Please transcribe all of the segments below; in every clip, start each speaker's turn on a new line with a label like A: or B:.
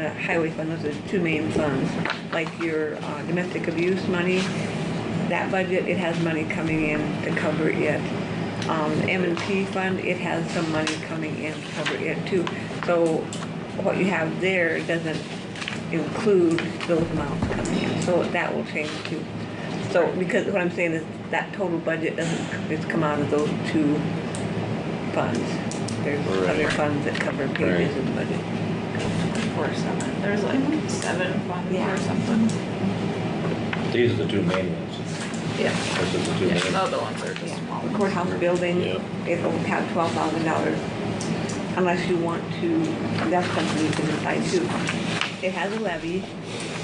A: Uh, Highway fund, those are the two main funds, like your uh, domestic abuse money, that budget, it has money coming in to cover it. Um, M and P fund, it has some money coming in to cover it too. So what you have there doesn't include those amounts coming in, so that will change too. So, because what I'm saying is that total budget doesn't, it's come out of those two funds. There's
B: Right.
A: other funds that cover pages
B: Right.
A: of the budget.
C: Or seven, there's like seven funds
A: Yeah.
C: or something.
D: These are the two main ones.
C: Yeah.
D: This is the two
C: Yeah, the
A: oh.
D: main.
C: other ones are just small.
A: The courthouse building,
B: Yeah.
A: it'll have twelve thousand dollars unless you want to, that's something you can decide too. It has a levy,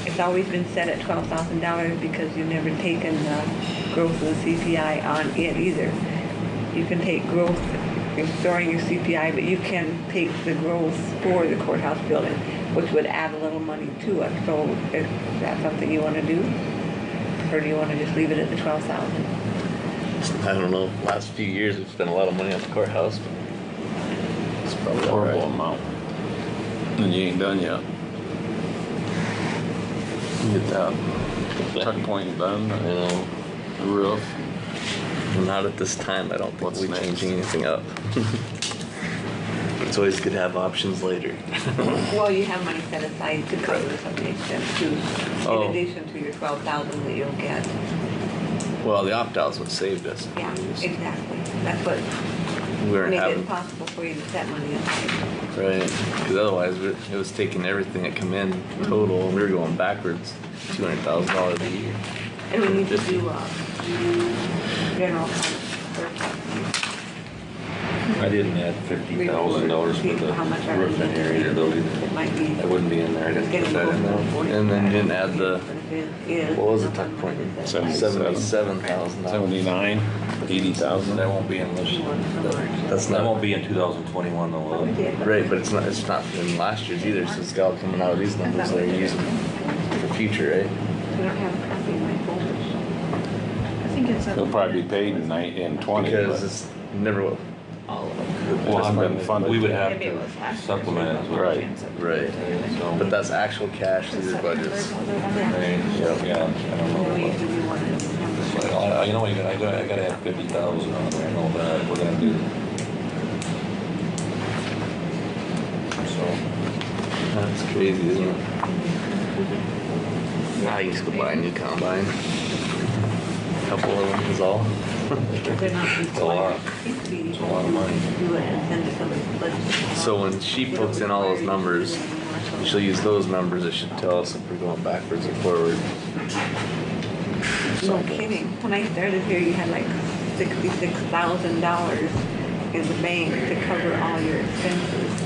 A: it's always been set at twelve thousand dollars because you've never taken the growth of the CPI on it either. You can take growth, you're storing your CPI, but you can take the growth for the courthouse building, which would add a little money to it, so is that something you wanna do? Or do you wanna just leave it at the twelve thousand?
B: I don't know, last few years we've spent a lot of money on the courthouse. It's probably all
E: horrible
B: right.
E: amount. And you ain't done yet. Get that tuck point done,
B: You know,
E: the roof.
B: not at this time, I don't think
E: What's
B: we
E: next?
B: changing anything up. It's always good to have options later.
A: Well, you have money set aside to cover some of the expense too,
B: Oh.
A: in addition to your twelve thousand that you'll get.
B: Well, the opt-out's what saved us.
A: Yeah, exactly. That's what
B: We weren't
A: made it
B: having, right,
A: possible for you to set money aside.
B: because otherwise we- it was taking everything that come in total and we were going backwards, two hundred thousand dollars a year.
A: And we need to do, uh, do general fund first.
D: I didn't add fifty thousand dollars for the
A: How much are
D: roof in here either though
A: It
D: either.
A: might be.
D: That wouldn't be in there, I didn't
A: getting
D: put that in
A: close to
D: there.
A: 40.
B: And then didn't add the-
A: If it is,
B: What was the
A: how
B: tuck
A: much
B: point?
A: is that?
E: Seventy-seven.
B: Seventy-seven thousand dollars.
E: Seventy-nine, eighty thousand.
D: That won't be in this,
A: You want so much.
B: That's
D: that
B: not.
D: won't be in two thousand twenty-one though, will
A: We
D: it?
A: did,
B: Right, but it's not, it's not in last year's either, so it's got coming out of these numbers that are using for future, right?
A: We don't have a copy in my folder.
C: I think it's.
E: It'll probably be paid in nine, in twenty,
B: Because
E: but
B: it's never what.
C: All of them.
E: it hasn't been funded.
D: We would
E: yet.
D: have
C: Maybe it was
D: to
C: last.
D: supplement it,
E: Right.
B: Right. But
D: so.
B: that's actual cash, these are budgets.
D: Right,
B: Yep.
D: Yeah, I don't
A: And
D: know.
A: we
D: what-
A: usually do one in December.
D: Well, I- I- You know, what, you gotta- I gotta, I gotta have fifty thousand on there, I know that, we're gonna do. So,
B: That's crazy, isn't it? Now you just go buy a new combine. Couple of them is all.
A: They're not
D: It's a lot.
A: It's
D: It's a lot of money.
A: Do it and send it somebody, but-
B: So when she puts in all those numbers, she'll use those numbers, it should tell us if we're going backwards or forward.
A: No kidding. When I started here, you had like sixty-six thousand dollars in the bank to cover all your expenses.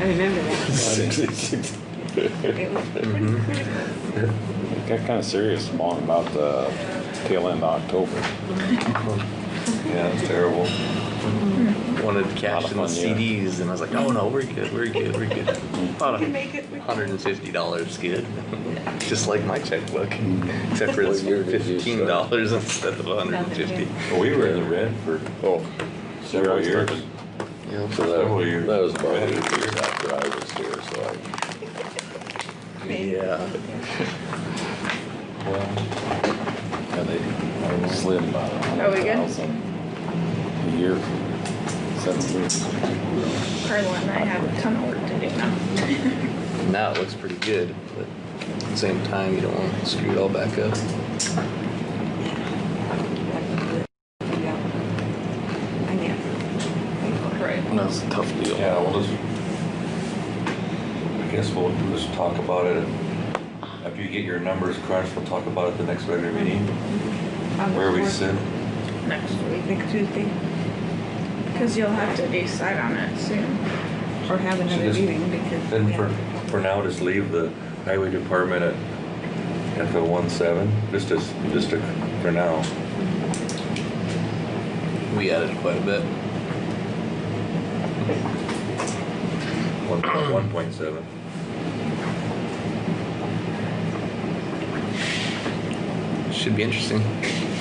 A: I remember that.
E: Sixty-six.
A: It was pretty
B: Mhm.
A: critical.
E: Got kinda serious along about the tail end of October.
D: yeah, it's terrible.
B: Wanted cash
E: Lot of
B: in the
E: fun, yeah.
B: CDs and I was like, oh no, we're good, we're good, we're good. About
A: We can make it, we can-
B: hundred and fifty dollars good, just like my checkbook,
A: Mm.
B: except for it's
E: What year did you
B: fifteen dollars instead of a hundred and fifty.
D: But we were in the red for
E: Oh.
D: several years.
E: So
D: Several years.
E: that, that was about
D: Right.
E: eight years after I was here, so I.
B: Yeah.
D: Well,
E: And they slid about a
C: Are we
E: hundred
C: good?
E: thousand a year, seven years.
C: Carla and I have a ton of work to do now.
B: Now it looks pretty good, but at the same time, you don't want to screw it all back up.
A: Yeah. I know.
C: Right.
B: That's a tough deal.
D: yeah, well, just, I guess we'll just talk about it, after you get your numbers crunched, we'll talk about it the next regular meeting, where we sit.
C: Next week.
A: Next Tuesday,
C: Cause you'll have to decide on it soon.
A: or have
D: So
A: another
D: just-
A: meeting because.
D: Then
A: yeah.
D: for, for now, just leave the highway department at, at the one seven, just as, just to, for now.
B: We added quite a bit.
D: One, one point seven.
B: Should be interesting.